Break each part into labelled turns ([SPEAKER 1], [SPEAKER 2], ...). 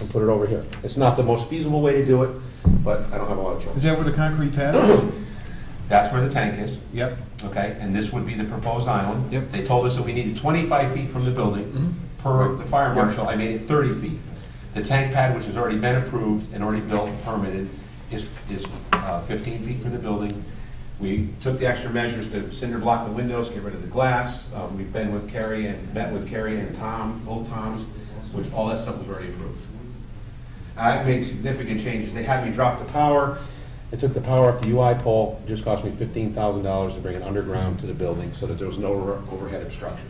[SPEAKER 1] and put it over here. It's not the most feasible way to do it, but I don't have a lot of
[SPEAKER 2] Is
[SPEAKER 1] choice.
[SPEAKER 2] that where the concrete pad is?
[SPEAKER 1] That's where the tank is,
[SPEAKER 2] Yep.
[SPEAKER 1] okay, and this would be the proposed island.
[SPEAKER 2] Yep.
[SPEAKER 1] They told us that we needed 25 feet from the building per the fire marshal, I made it 30 feet. The tank pad, which has already been approved and already built, and permitted, is, is uh, 15 feet from the building. We took the extra measures to cinder block the windows, get rid of the glass. Uh, We've been with Kerry and met with Kerry and Tom, both Toms, which all that stuff was already approved. I made significant changes. They had me drop the power. They took the power off the UI pole, It just cost me fifteen thousand dollars to bring it underground to the building so that there was no over- overhead obstruction.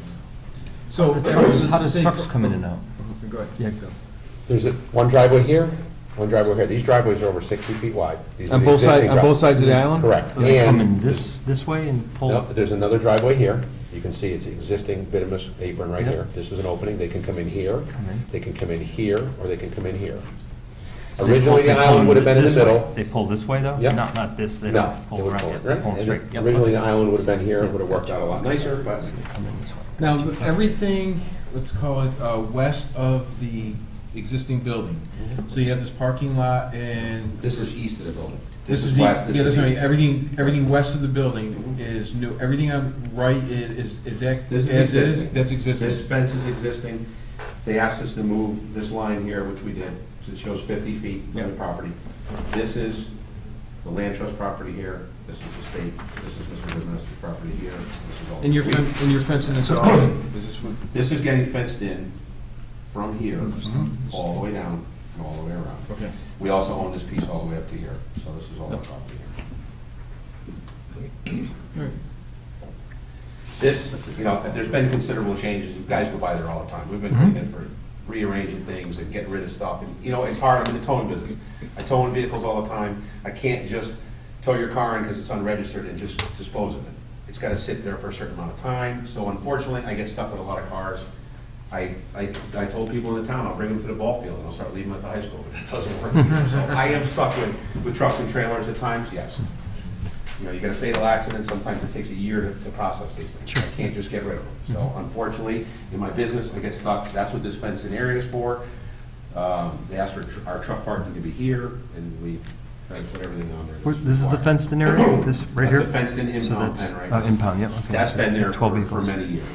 [SPEAKER 2] So.
[SPEAKER 3] How does trucks come in and out?
[SPEAKER 2] Go ahead.
[SPEAKER 3] Yeah.
[SPEAKER 1] There's a- one driveway here, one driveway here. These driveways are over sixty feet wide. These are
[SPEAKER 2] On
[SPEAKER 1] the
[SPEAKER 2] both sides,
[SPEAKER 1] existing
[SPEAKER 2] on both
[SPEAKER 1] driveways.
[SPEAKER 2] sides of the island?
[SPEAKER 1] Correct.
[SPEAKER 3] Do they come
[SPEAKER 1] And,
[SPEAKER 3] in this, this way and pull?
[SPEAKER 1] no,
[SPEAKER 3] up?
[SPEAKER 1] there's another driveway here. You can see it's existing bituminous apron right here. This is an opening. They can come in here,
[SPEAKER 3] Come in.
[SPEAKER 1] they can come in here, or they can come in here.
[SPEAKER 3] They pull-
[SPEAKER 1] Originally,
[SPEAKER 3] they
[SPEAKER 1] the
[SPEAKER 3] pull
[SPEAKER 1] island would have been in the
[SPEAKER 3] this way.
[SPEAKER 1] middle.
[SPEAKER 3] They pull this way, though?
[SPEAKER 1] Yep.
[SPEAKER 3] Not, not this, they
[SPEAKER 1] No,
[SPEAKER 3] don't
[SPEAKER 1] it
[SPEAKER 3] pull
[SPEAKER 1] would
[SPEAKER 3] around.
[SPEAKER 1] pull
[SPEAKER 3] yeah,
[SPEAKER 1] it, right?
[SPEAKER 3] they pull straight,
[SPEAKER 1] And
[SPEAKER 3] yep.
[SPEAKER 1] Originally, the island would have been here, it would have worked out a lot nicer, but
[SPEAKER 3] Come in this way.
[SPEAKER 2] Now, everything, let's call it, uh, west of the existing building. So you have this parking lot and.
[SPEAKER 1] this is east of the building.
[SPEAKER 2] This is the,
[SPEAKER 1] west,
[SPEAKER 2] yeah, that's
[SPEAKER 1] east.
[SPEAKER 2] right, everything, everything west of the building is new, everything on right i- is, is that,
[SPEAKER 1] This
[SPEAKER 2] as
[SPEAKER 1] is
[SPEAKER 2] is,
[SPEAKER 1] existing.
[SPEAKER 2] that's
[SPEAKER 1] This
[SPEAKER 2] existing.
[SPEAKER 1] fence is existing. They asked us to move this line here, which we did, it shows 50 feet from the
[SPEAKER 2] Yeah.
[SPEAKER 1] property. This is the land trust property here, this is the state, this is Mr. Woodmaster's property here, this is all.
[SPEAKER 2] And your
[SPEAKER 1] We-
[SPEAKER 2] fence, and your fencing is, is this what?
[SPEAKER 1] This is getting fenced in from here,
[SPEAKER 2] Mm-hmm.
[SPEAKER 1] all the way down, and all the way around.
[SPEAKER 2] Okay.
[SPEAKER 1] We also own this piece all the way up to here, so this is all the property here. This, you know, there's been considerable changes, you guys go by there all the time, we've been cleaning for, rearranging things and getting rid of stuff, and, you know, it's hard, I'm in the towing business. I tow in vehicles all the time, I can't just tow your car in because it's unregistered and just dispose of it. It's gotta sit there for a certain amount of time, so unfortunately, I get stuck with a lot of cars. I, I, I told people in the town, I'll bring them to the ball field, and I'll start leaving them at the high school, but that doesn't work. So I am stuck with, with trucks and trailers at times, yes. You know, you get a fatal accident, sometimes it takes a year to, to process these things. I can't just get rid of them.
[SPEAKER 3] Mm-hmm.
[SPEAKER 1] So unfortunately, in my business, I get stuck, that's what this fenced in area is for. Um, they asked for tr- our truck parking to be here, and we try to put everything on there. that's
[SPEAKER 3] Where- This is the
[SPEAKER 1] required.
[SPEAKER 3] fenced-in area, this, right here?
[SPEAKER 1] That's a fenced-in impound
[SPEAKER 3] So
[SPEAKER 1] pen right
[SPEAKER 3] that's,
[SPEAKER 1] now.
[SPEAKER 3] uh, impound, yep, okay.
[SPEAKER 1] That's been there
[SPEAKER 3] Twelve
[SPEAKER 1] for, for
[SPEAKER 3] vehicles.
[SPEAKER 1] many years.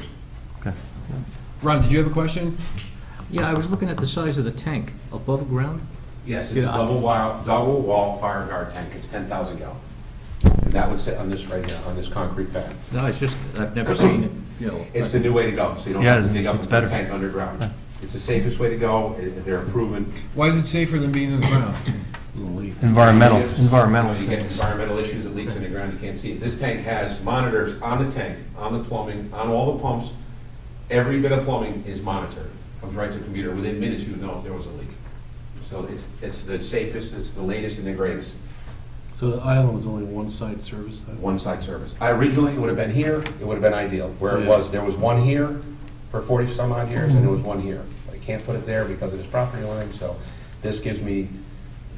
[SPEAKER 3] Okay.
[SPEAKER 2] Ron, did you have a question?
[SPEAKER 4] Yeah, I was looking at the size of the tank, above ground?
[SPEAKER 1] Yes, it's a
[SPEAKER 4] Yeah.
[SPEAKER 1] double wall, double wall fire guard tank, it's ten thousand gallon. And that would sit on this right now, on this concrete pad.
[SPEAKER 4] No, it's just, I've never seen it, you know.
[SPEAKER 1] It's the new way to go, so you don't
[SPEAKER 3] Yeah,
[SPEAKER 1] have to dig
[SPEAKER 3] it's-
[SPEAKER 1] up
[SPEAKER 3] it's
[SPEAKER 1] and put
[SPEAKER 3] better.
[SPEAKER 1] a tank underground. It's the safest way to go, it- they're improving.
[SPEAKER 2] Why is it safer than being in the ground?
[SPEAKER 3] Environmental,
[SPEAKER 1] Yes.
[SPEAKER 3] environmental
[SPEAKER 1] You get
[SPEAKER 3] things.
[SPEAKER 1] environmental issues, it leaks in the ground, you can't see it. This tank has monitors on the tank, on the plumbing, on all the pumps. Every bit of plumbing is monitored, comes right to the computer. Within minutes, you know if there was a leak. So it's, it's the safest, it's the latest and the greatest.
[SPEAKER 5] So the island was only one side service then?
[SPEAKER 1] one-side service. I Originally, it would have been here, it would have been ideal. Where it
[SPEAKER 5] Yeah.
[SPEAKER 1] was, there was one here for 40-some odd years, and there was one here. But I can't put it there because of this property line, so this gives me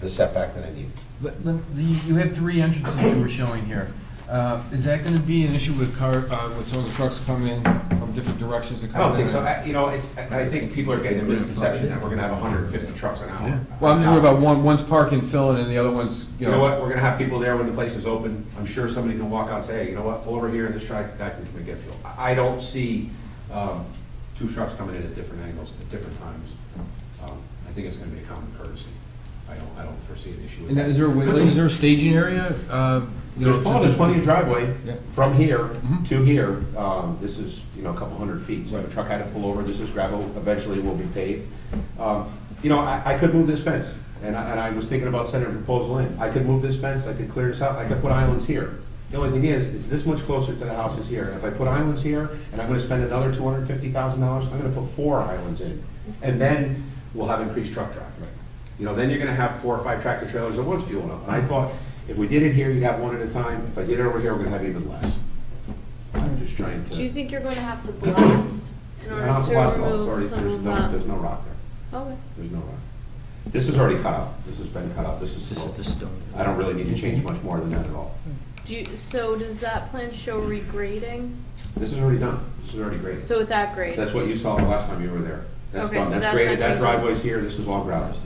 [SPEAKER 1] the setback that I need.
[SPEAKER 2] But the- the- You had three entrances you were showing here. Uh, Is that going to be an issue with car, uh, with some of the trucks come in from different directions to
[SPEAKER 1] I
[SPEAKER 2] come in?
[SPEAKER 1] don't think so. I- You know, it's, I I think people are getting a misconception that we're going to have 150 trucks an hour.
[SPEAKER 2] Well, I'm just worried about one, one's parking, filling, and the other one's,
[SPEAKER 1] You know what, we're going to have people there when the place is open. I'm sure somebody can walk out and say, hey, you know what, pull over here and this truck, guy can come and get fuel. I I don't see um, two trucks coming in at different angles at different times. Um, I think it's going to be a common courtesy. I don't, I don't foresee an issue with
[SPEAKER 2] And
[SPEAKER 1] that.
[SPEAKER 2] is there, a wi- like, is there a staging area? uh, you know,
[SPEAKER 1] There's, oh, there's plenty of driveway
[SPEAKER 2] Yeah.
[SPEAKER 1] from here to here. Um, This is, you know, a couple hundred feet. So if a truck had to pull over, this is gravel, eventually will be paved. Um, You know, I, I could move this fence, and I, and I was thinking about sending a proposal in. I could move this fence, I could clear this out, I could put islands here. The only thing is, it's this much closer to the house is here. If I put islands here, and I'm gonna spend another two hundred and fifty thousand dollars, I'm gonna put four islands in. And then we'll have increased truck traffic. You know, then you're gonna have four or five tractor trailers at once fueling up. And I thought, if we did it here, you'd have one at a time. If I did it over here, we're gonna have even less. I'm just trying to.
[SPEAKER 6] Do you think you're going to have to blast in
[SPEAKER 1] No,
[SPEAKER 6] order
[SPEAKER 1] it's blast
[SPEAKER 6] to
[SPEAKER 1] off. It's already-
[SPEAKER 6] remove some
[SPEAKER 1] there's
[SPEAKER 6] of
[SPEAKER 1] no-
[SPEAKER 6] that?
[SPEAKER 1] There's no rock there.
[SPEAKER 6] Okay.
[SPEAKER 1] There's no rock. This is already cut out. This has been cut out. This is
[SPEAKER 4] This is the
[SPEAKER 1] slow.
[SPEAKER 4] stone.
[SPEAKER 1] I don't really need to change much more than that at all.
[SPEAKER 6] Do you, so does that plan show regrading?
[SPEAKER 1] This is already done. This is already graded.
[SPEAKER 6] So it's at grade?
[SPEAKER 1] That's what you saw the last time you were there. That's
[SPEAKER 6] Okay,
[SPEAKER 1] done.
[SPEAKER 6] so
[SPEAKER 1] That's
[SPEAKER 6] that's
[SPEAKER 1] graded.
[SPEAKER 6] not
[SPEAKER 1] That
[SPEAKER 6] changing.
[SPEAKER 1] driveway's here. This is all gravel.